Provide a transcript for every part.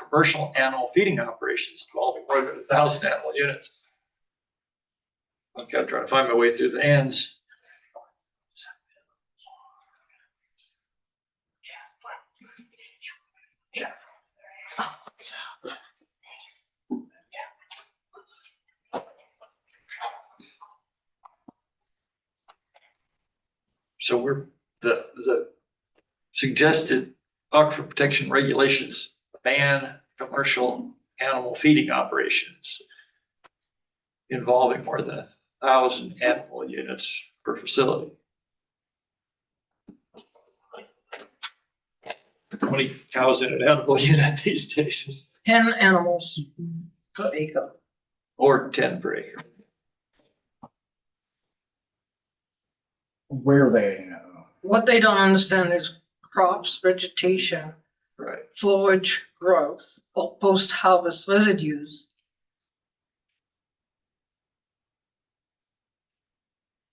commercial animal feeding operations involving more than a thousand animal units. Okay, I'm trying to find my way through the ands. So we're, the, the suggested aquifer protection regulations ban commercial animal feeding operations involving more than a thousand animal units per facility. How many cows in an animal unit these days? Ten animals per acre. Or ten per acre? Where they, uh, What they don't understand is crops, vegetation, Right. forage growth, or post-harvest residues.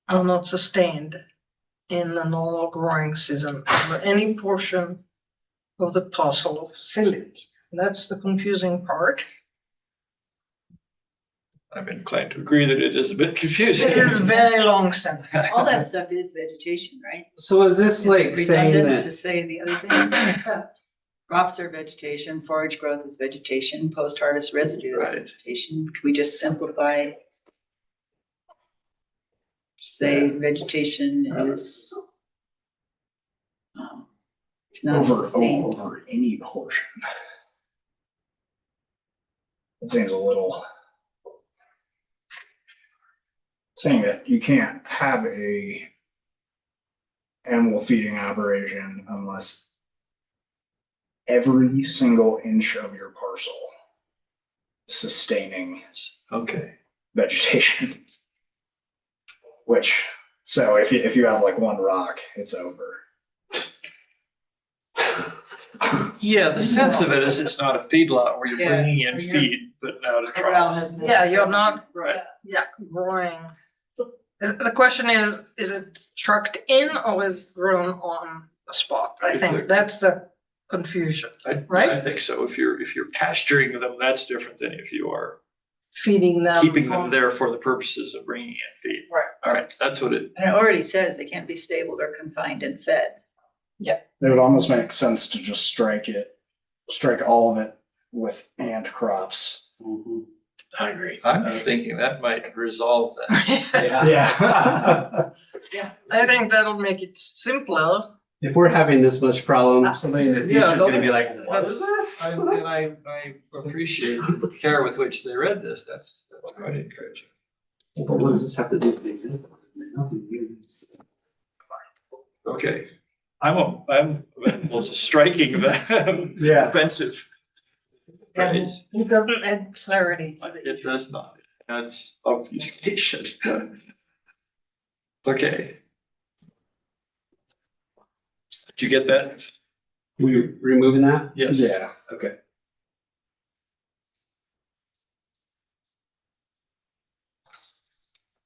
Are not sustained in the normal growing season over any portion of the parcel or facility. That's the confusing part. I'm inclined to agree that it is a bit confusing. It is very long sentence. All that stuff is vegetation, right? So is this Is it like saying redundant To that, say the other things. Crops are vegetation, forage growth is vegetation, post-harvest residue is Right. vegetation. Can we just simplify? Say vegetation is. um, It's not over, sustained. over any portion? It seems a little. Saying that you can't have a animal feeding operation unless every single inch of your parcel sustaining Okay, vegetation. Which, so if you, if you have like one rock, it's over. yeah, the sense of it is it's not a feedlot where you're Yeah, bringing in where you're- feed, but out of Corral troughs. has no- Yeah, you're not- Right. Yeah, growing. The the question is, is it trucked in or is it grown on the spot? I think that's the confusion. I, Right? I think so. If you're, if you're pasturing them, that's different than if you are Feeding them. keeping them from- there for the purposes of bringing in feed. Right. All right, that's what it, And it already says they can't be stabled or confined and fed. It would almost make sense to just strike it, strike all of it with and crops. Mm-hmm. I agree. I'm thinking that might resolve that. Yeah. I think that'll make it simpler. If we're having this much problem, somebody in the Yeah, future is gonna be like, that's- what is this? I- And I, I appreciate the care with which they read this. That's, that's quite encouraging. But what does this have to do with the example? Nothing new. Okay. I'm, a- I'm, well, just striking that Yeah. offensive phrase. It doesn't add clarity. But It does not. That's obfuscation. Okay. Did you get that? We removing that? Yes. Yeah. Okay.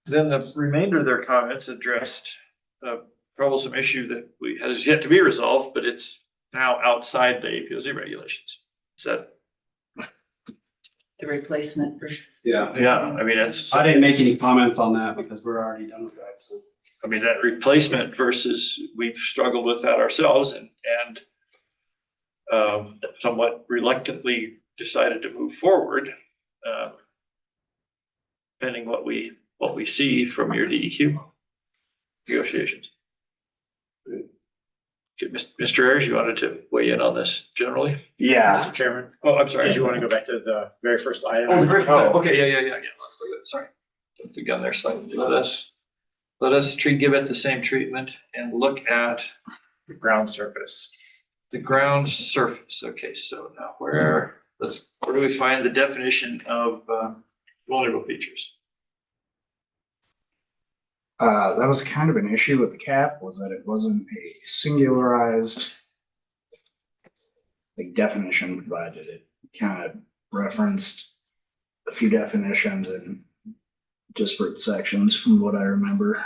Then the remainder of their comments addressed a troublesome issue that we, has yet to be resolved, but it's now outside the APOZ regulations. Is that? The replacement versus. Yeah. Yeah, I mean, that's. I didn't make any comments on that because we're already done with that, so. I mean, that replacement versus we've struggled with that ourselves and, and um, somewhat reluctantly decided to move forward. um, Depending what we, what we see from your DEQ negotiations. Okay, Mis- Mr. Ayers, you wanted to weigh in on this generally? Yeah. Mr. Chairman, Oh, I'm sorry. did you want to go back to the very first item? Oh, the first time. Oh. Okay, yeah, yeah, yeah, yeah. Let's look at it. Sorry. Jumped the gun there slightly. Let us, let us treat, give it the same treatment and look at The Ground surface. the ground surface. Okay, so now where, let's, where do we find the definition of uh, vulnerable features? Uh, that was kind of an issue with the cap was that it wasn't a singularized like definition provided. It kind of referenced a few definitions in disparate sections from what I remember.